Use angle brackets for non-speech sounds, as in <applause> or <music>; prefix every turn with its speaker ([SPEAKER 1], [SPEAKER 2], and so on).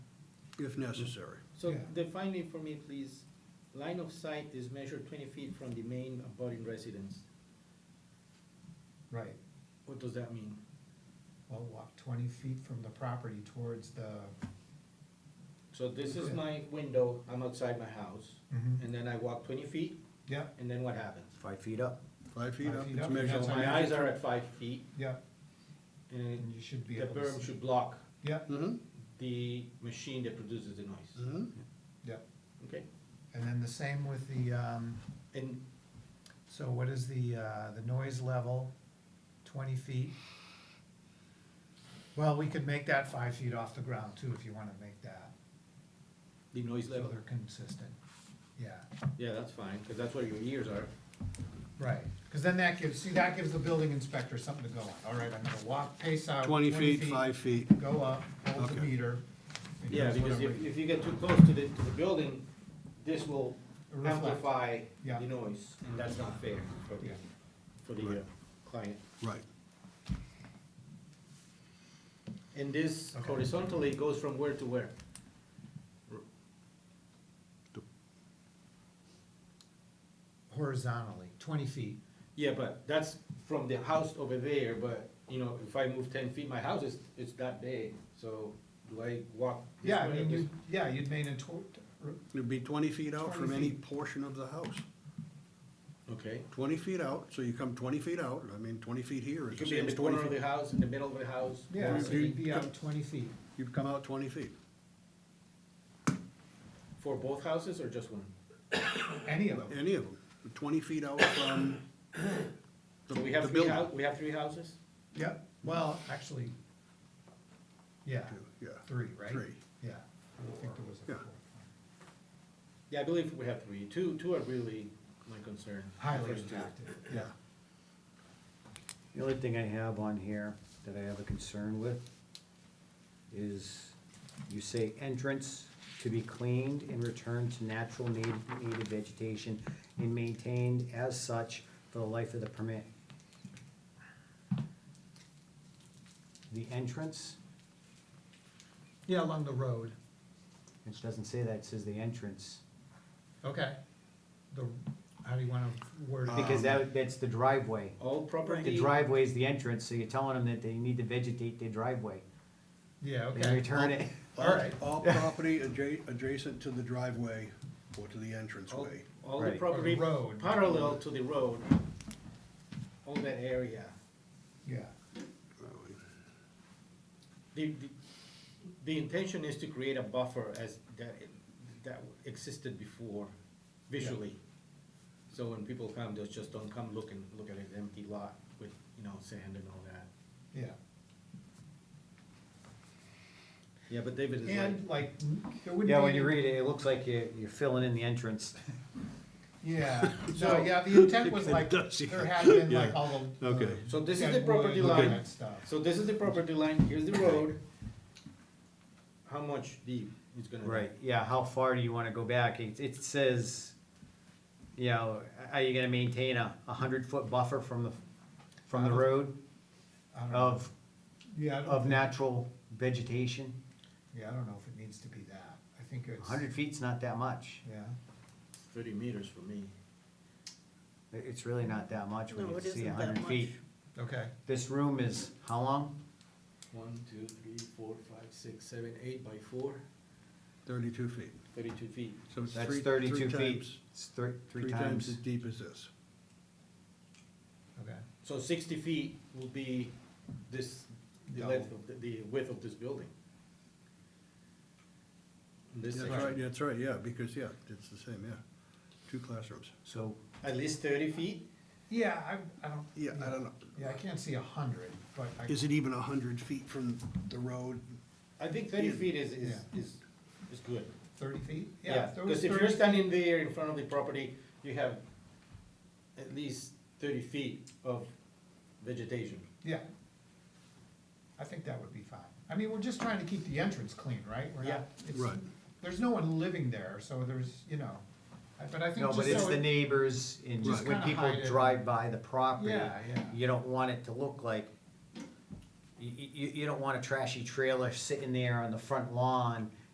[SPEAKER 1] if necessary.
[SPEAKER 2] So
[SPEAKER 3] Yeah.
[SPEAKER 2] define it for me, please. Line of sight is measured twenty feet from the main abutting residence.
[SPEAKER 3] Right,
[SPEAKER 2] What does that mean?
[SPEAKER 3] well, walk twenty feet from the property towards the,
[SPEAKER 2] So this is
[SPEAKER 3] Yeah.
[SPEAKER 2] my window, I'm outside my house,
[SPEAKER 1] Mm-hmm.
[SPEAKER 3] Mhm.
[SPEAKER 2] and then I walk twenty feet,
[SPEAKER 3] yep,
[SPEAKER 2] and then what happens?
[SPEAKER 4] Five feet up.
[SPEAKER 1] Five feet
[SPEAKER 3] Five
[SPEAKER 1] up,
[SPEAKER 3] feet
[SPEAKER 1] it's
[SPEAKER 3] up, that's
[SPEAKER 1] measurable.
[SPEAKER 3] how-
[SPEAKER 2] My eyes are at five feet,
[SPEAKER 3] yep, and
[SPEAKER 2] and
[SPEAKER 3] you should be
[SPEAKER 2] the
[SPEAKER 3] able to.
[SPEAKER 2] berm
[SPEAKER 3] see-
[SPEAKER 2] should block
[SPEAKER 3] Yep,
[SPEAKER 1] Mm-hmm,
[SPEAKER 2] the machine that produces the noise,
[SPEAKER 1] mm-hmm.
[SPEAKER 3] yep,
[SPEAKER 2] okay?
[SPEAKER 3] and then the same with the, um,
[SPEAKER 2] And
[SPEAKER 3] so what is the, uh, the noise level, twenty feet? Well, we could make that five feet off the ground too, if you wanna make that,
[SPEAKER 2] the noise
[SPEAKER 3] so
[SPEAKER 2] level,
[SPEAKER 3] they're consistent, yeah.
[SPEAKER 2] yeah, that's fine, because that's where your ears are.
[SPEAKER 3] Right, because then that gives, see, that gives the building inspector something to go on, all right, I'm gonna walk, pace out.
[SPEAKER 1] Twenty feet, five feet.
[SPEAKER 3] Go up, hold the
[SPEAKER 1] Okay.
[SPEAKER 3] meter. and
[SPEAKER 2] Yeah,
[SPEAKER 3] here's what
[SPEAKER 2] because
[SPEAKER 3] I'm
[SPEAKER 2] if,
[SPEAKER 3] reading.
[SPEAKER 2] if you get too close to the, to the building, this will
[SPEAKER 3] Reflect.
[SPEAKER 2] amplify
[SPEAKER 3] Yeah.
[SPEAKER 2] the noise, and that's not fair for the,
[SPEAKER 3] Yeah.
[SPEAKER 2] for the uh, client.
[SPEAKER 1] Right,
[SPEAKER 2] And this
[SPEAKER 3] Okay.
[SPEAKER 2] horizontally goes from where to where?
[SPEAKER 3] Horizontally, twenty feet,
[SPEAKER 2] Yeah, but that's from the house over there, but, you know, if I move ten feet, my house is, it's that big, so do I walk? this
[SPEAKER 3] yeah, I
[SPEAKER 2] way or
[SPEAKER 3] mean,
[SPEAKER 2] this-
[SPEAKER 3] you, yeah, you'd made a tw-
[SPEAKER 1] it'd be twenty feet out from
[SPEAKER 3] 20
[SPEAKER 1] any
[SPEAKER 3] feet.
[SPEAKER 1] portion of the house.
[SPEAKER 2] Okay,
[SPEAKER 1] Twenty feet out, so you come twenty feet out, I mean, twenty feet here
[SPEAKER 2] it
[SPEAKER 1] is the
[SPEAKER 2] could be in
[SPEAKER 1] same
[SPEAKER 2] the
[SPEAKER 1] as twenty
[SPEAKER 2] corner of the
[SPEAKER 1] feet.
[SPEAKER 2] house, in the middle of the house.
[SPEAKER 3] yeah,
[SPEAKER 2] or
[SPEAKER 3] so
[SPEAKER 1] you-
[SPEAKER 3] you'd be
[SPEAKER 1] you-
[SPEAKER 3] out twenty feet,
[SPEAKER 1] You'd come out twenty feet.
[SPEAKER 2] For both houses or just one?
[SPEAKER 3] any of them,
[SPEAKER 1] Any of them, twenty feet out from the,
[SPEAKER 2] <coughs> So we
[SPEAKER 1] the
[SPEAKER 2] have three
[SPEAKER 1] building.
[SPEAKER 2] hou, we have three houses?
[SPEAKER 3] yep, well, actually, yeah,
[SPEAKER 1] Yeah,
[SPEAKER 3] three, right?
[SPEAKER 1] Three.
[SPEAKER 3] Yeah, I don't think there was a
[SPEAKER 1] Yeah.
[SPEAKER 3] fourth one.
[SPEAKER 2] Yeah, I believe we have three. Two, two are really my concern. the
[SPEAKER 3] Highly
[SPEAKER 2] first two.
[SPEAKER 3] impacted, yeah,
[SPEAKER 4] The only thing I have on here that I have a concern with is you say entrance to be cleaned and returned to natural native, native vegetation and maintained as such for the life of the permit. The entrance,
[SPEAKER 3] yeah, along the road,
[SPEAKER 4] it doesn't say that, it says the entrance,
[SPEAKER 3] okay, the, how do you wanna word it? Um,
[SPEAKER 4] because that, that's the driveway.
[SPEAKER 2] All
[SPEAKER 4] The
[SPEAKER 2] property,
[SPEAKER 4] driveway is the entrance, so you're telling them that they need to vegetate their driveway
[SPEAKER 3] Yeah,
[SPEAKER 4] and
[SPEAKER 3] okay.
[SPEAKER 4] return it.
[SPEAKER 3] All right.
[SPEAKER 1] All property adja- adjacent to the driveway or to the
[SPEAKER 2] all,
[SPEAKER 1] entranceway.
[SPEAKER 2] all the
[SPEAKER 4] Right.
[SPEAKER 2] property
[SPEAKER 3] Or the road.
[SPEAKER 2] parallel to the road, all that area.
[SPEAKER 3] Yeah,
[SPEAKER 2] The, the, the intention is to create a buffer as that, that existed before visually. So when people come, they just don't come look and look at an empty lot with, you know, sand and all that.
[SPEAKER 3] yeah.
[SPEAKER 2] Yeah, but David is right.
[SPEAKER 3] And like, there wouldn't be.
[SPEAKER 4] Yeah, when you
[SPEAKER 3] any-
[SPEAKER 4] read it, it looks like you're, you're filling in
[SPEAKER 1] <laughs>
[SPEAKER 4] the entrance.
[SPEAKER 3] Yeah, <laughs>
[SPEAKER 2] So-
[SPEAKER 3] no, yeah, the intent was
[SPEAKER 1] It
[SPEAKER 3] like,
[SPEAKER 1] does, yeah.
[SPEAKER 3] there had been like
[SPEAKER 1] Yeah.
[SPEAKER 3] all the.
[SPEAKER 1] Okay.
[SPEAKER 3] the
[SPEAKER 2] So this is
[SPEAKER 3] dead
[SPEAKER 2] the property
[SPEAKER 3] wood, all
[SPEAKER 2] line.
[SPEAKER 3] that Stuff,
[SPEAKER 2] So this is the property line, here's the road. How much deep it's gonna be?
[SPEAKER 4] Right, yeah, how far do you wanna go back? It, it says, you know, are you gonna maintain a, a hundred foot buffer from the, from the road
[SPEAKER 3] I don't know,
[SPEAKER 4] of,
[SPEAKER 3] yeah, I don't
[SPEAKER 4] of
[SPEAKER 3] think,
[SPEAKER 4] natural vegetation?
[SPEAKER 3] yeah, I don't know if it needs to be that, I think
[SPEAKER 4] A
[SPEAKER 3] it's,
[SPEAKER 4] hundred feet's not that much.
[SPEAKER 3] yeah,
[SPEAKER 2] Thirty meters for me.
[SPEAKER 4] It- It's really not that much when
[SPEAKER 5] No,
[SPEAKER 4] you
[SPEAKER 5] it
[SPEAKER 4] see a
[SPEAKER 5] isn't that
[SPEAKER 4] hundred
[SPEAKER 5] much.
[SPEAKER 4] feet.
[SPEAKER 3] okay,
[SPEAKER 4] This room is, how long?
[SPEAKER 2] One, two, three, four, five, six, seven, eight by four,
[SPEAKER 1] Thirty-two feet.
[SPEAKER 2] thirty-two feet.
[SPEAKER 1] So it's
[SPEAKER 4] That's
[SPEAKER 1] three, three
[SPEAKER 4] thirty-two feet.
[SPEAKER 1] times,
[SPEAKER 4] It's three,
[SPEAKER 1] three times as deep as this.
[SPEAKER 3] okay,
[SPEAKER 2] So sixty feet will be this, the length
[SPEAKER 3] Double.
[SPEAKER 2] of, the- the width of this building. This
[SPEAKER 1] That's
[SPEAKER 2] section.
[SPEAKER 1] right, that's right, yeah, because, yeah, it's the same, yeah. Two classrooms.
[SPEAKER 4] So,
[SPEAKER 2] At least thirty feet,
[SPEAKER 3] yeah, I, I don't.
[SPEAKER 1] Yeah, I don't know.
[SPEAKER 3] Yeah, I can't see a hundred, but I,
[SPEAKER 1] Is it even a hundred feet from the road?
[SPEAKER 2] I think thirty
[SPEAKER 1] Yeah.
[SPEAKER 2] feet is, is,
[SPEAKER 3] Yeah.
[SPEAKER 2] is, is good.
[SPEAKER 3] thirty feet, yeah,
[SPEAKER 2] Yeah,
[SPEAKER 3] if there was
[SPEAKER 2] because if you're
[SPEAKER 3] 30
[SPEAKER 2] standing there in front of the property, you have at least thirty feet of vegetation.
[SPEAKER 3] Yeah. I think that would be fine. I mean, we're just trying to keep the entrance clean, right? We're not-
[SPEAKER 2] Yeah.
[SPEAKER 3] it's-
[SPEAKER 1] Right.
[SPEAKER 3] There's no one living there, so there's, you know, I- but I think
[SPEAKER 4] no,
[SPEAKER 3] just so.
[SPEAKER 4] but it's the
[SPEAKER 3] it-
[SPEAKER 4] neighbors and
[SPEAKER 3] Just
[SPEAKER 4] when
[SPEAKER 3] kinda
[SPEAKER 4] people
[SPEAKER 3] hide it.
[SPEAKER 4] drive by the property.
[SPEAKER 3] Yeah, yeah.
[SPEAKER 4] you don't want it to look like, you, you, you don't want a trashy trailer sitting there on the front lawn